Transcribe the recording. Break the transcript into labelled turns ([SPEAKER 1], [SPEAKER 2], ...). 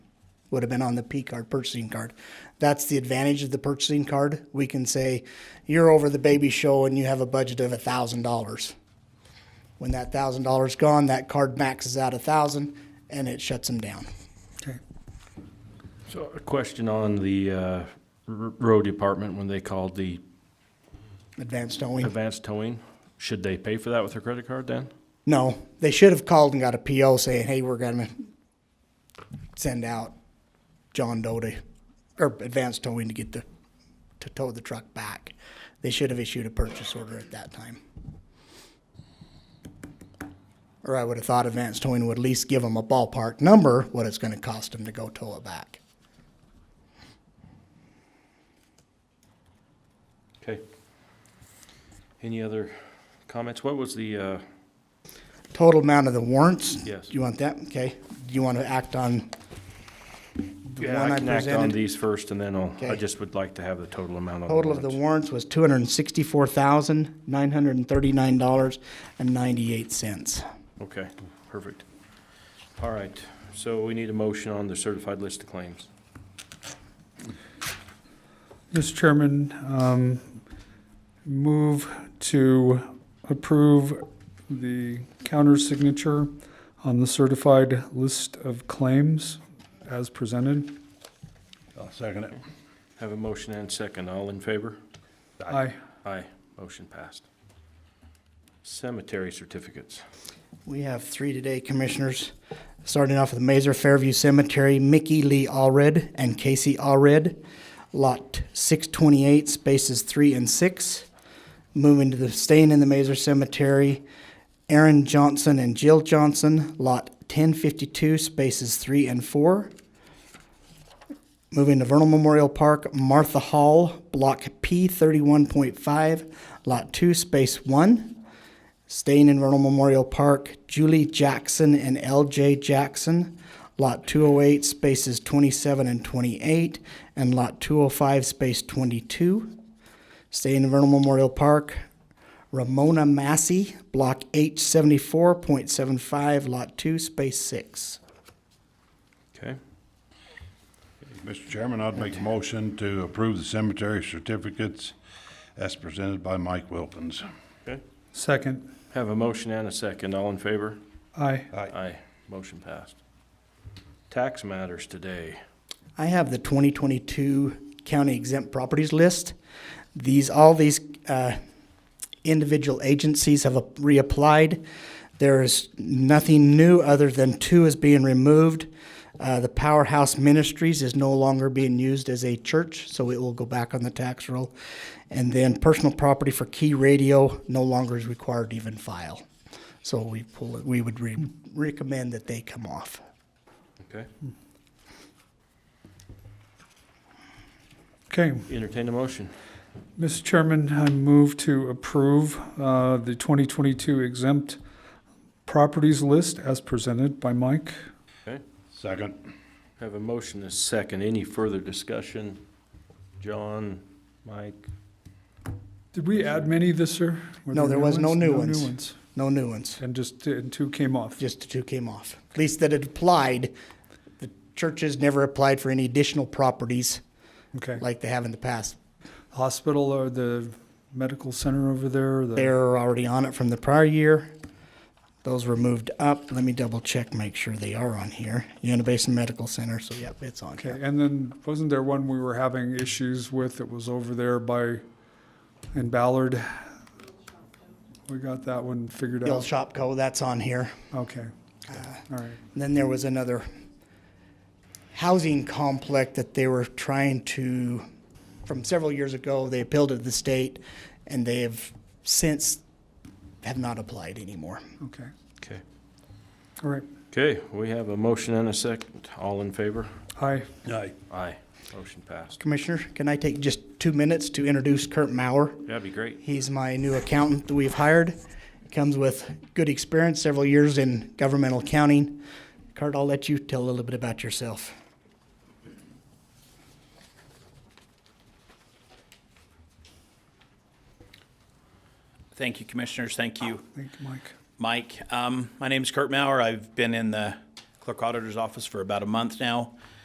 [SPEAKER 1] would have been on the P card, purchasing card. That's the advantage of the purchasing card. We can say, you're over the baby show and you have a budget of a thousand dollars. When that thousand dollars gone, that card maxes out a thousand and it shuts them down.
[SPEAKER 2] Okay.
[SPEAKER 3] So a question on the uh, r- road department, when they called the
[SPEAKER 1] Advanced towing.
[SPEAKER 3] advanced towing, should they pay for that with their credit card then?
[SPEAKER 1] No, they should have called and got a PO saying, hey, we're gonna send out John Doe to, or advanced towing to get the, to tow the truck back. They should have issued a purchase order at that time. Or I would have thought advanced towing would at least give them a ballpark number, what it's gonna cost them to go tow it back.
[SPEAKER 3] Okay. Any other comments? What was the, uh,
[SPEAKER 1] Total amount of the warrants?
[SPEAKER 3] Yes.
[SPEAKER 1] You want that? Okay. Do you wanna act on the
[SPEAKER 3] yeah,
[SPEAKER 1] one
[SPEAKER 3] I
[SPEAKER 1] I
[SPEAKER 3] can act on
[SPEAKER 1] presented?
[SPEAKER 3] these first and then I'll, I
[SPEAKER 1] Okay.
[SPEAKER 3] just would like to have the total amount on the
[SPEAKER 1] Total of the
[SPEAKER 3] warrants.
[SPEAKER 1] warrants was two hundred and sixty-four thousand, nine hundred and thirty-nine dollars and ninety-eight cents.
[SPEAKER 3] Okay, perfect. All right, so we need a motion on the certified list of claims.
[SPEAKER 2] Mr. Chairman, um, move to approve the counter signature on the certified list of claims as presented.
[SPEAKER 4] I'll second it.
[SPEAKER 3] Have a motion and second. All in favor?
[SPEAKER 2] Aye.
[SPEAKER 3] Aye, motion passed. Cemetery certificates.
[SPEAKER 1] We have three today, Commissioners. Starting off with Mazer Fairview Cemetery, Mickey Lee Allred and Casey Allred. Lot six twenty-eight, spaces three and six. Moving to the, staying in the Mazer Cemetery, Aaron Johnson and Jill Johnson, lot ten fifty-two, spaces three and four. Moving to Vernal Memorial Park, Martha Hall, Block P thirty-one point five, Lot two, Space one. Staying in Vernal Memorial Park, Julie Jackson and L.J. Jackson, Lot 208, spaces 27 and 28, and Lot 205, space 22. Staying in Vernal Memorial Park, Ramona Massey, Block H74.75, Lot 2, space 6.
[SPEAKER 3] Okay,
[SPEAKER 4] Mr. Chairman, I'd make a motion to approve the cemetery certificates as presented by Mike Wilkins.
[SPEAKER 3] okay.
[SPEAKER 2] Second.
[SPEAKER 3] Have a motion and a second. All in favor?
[SPEAKER 2] Aye.
[SPEAKER 3] Aye. Motion passed. Tax matters today.
[SPEAKER 1] I have the 2022 county exempt properties list. These, all these uh, individual agencies have reapplied. There is nothing new other than two is being removed. Uh, The Powerhouse Ministries is no longer being used as a church, so it will go back on the tax roll. And then personal property for Key Radio no longer is required to even file. So we pull, it- we would re- recommend that they come off.
[SPEAKER 3] Okay.
[SPEAKER 2] Okay,
[SPEAKER 3] Entertain a motion.
[SPEAKER 2] Mr. Chairman, I move to approve uh, the 2022 exempt properties list as presented by Mike.
[SPEAKER 4] Second.
[SPEAKER 3] Have a motion and a second. Any further discussion? John, Mike?
[SPEAKER 2] Did we add many this year? Were
[SPEAKER 1] No, there was no new ones.
[SPEAKER 2] No new ones.
[SPEAKER 1] No new ones.
[SPEAKER 2] And just, and two came off.
[SPEAKER 1] just the two came off. At least that it applied. The churches never applied for any additional properties
[SPEAKER 2] Okay.
[SPEAKER 1] like they have in the past.
[SPEAKER 2] hospital or the medical center over there? the-
[SPEAKER 1] They're already on it from the prior year. Those were moved up. Let me double check, make sure they are on here. Uinta Basin Medical Center, so yep, it's on
[SPEAKER 2] Okay,
[SPEAKER 1] here.
[SPEAKER 2] and then wasn't there one we were having issues with that was over there by, in Ballard? We got that one figured
[SPEAKER 1] The old
[SPEAKER 2] out.
[SPEAKER 1] Shopco, that's on here.
[SPEAKER 2] Okay, all right.
[SPEAKER 1] And then there was another housing complex that they were trying to, from several years ago, they appealed to the state and they have since have not applied anymore.
[SPEAKER 2] Okay,
[SPEAKER 3] Okay.
[SPEAKER 2] all right.
[SPEAKER 3] Okay, we have a motion and a second. All in favor?
[SPEAKER 2] Aye.
[SPEAKER 4] Aye.
[SPEAKER 3] Aye. Motion passed.
[SPEAKER 1] Commissioner, can I take just two minutes to introduce Kurt Maurer?
[SPEAKER 3] That'd be great.
[SPEAKER 1] He's my new accountant that we've hired. Comes with good experience, several years in governmental accounting. Kurt, I'll let you tell a little bit about yourself.
[SPEAKER 5] Thank you, Commissioners. Thank you,
[SPEAKER 2] Thank you, Mike.
[SPEAKER 5] Mike. Um, My name is Kurt Maurer. I've been in the Clerk Auditor's Office for about a month now.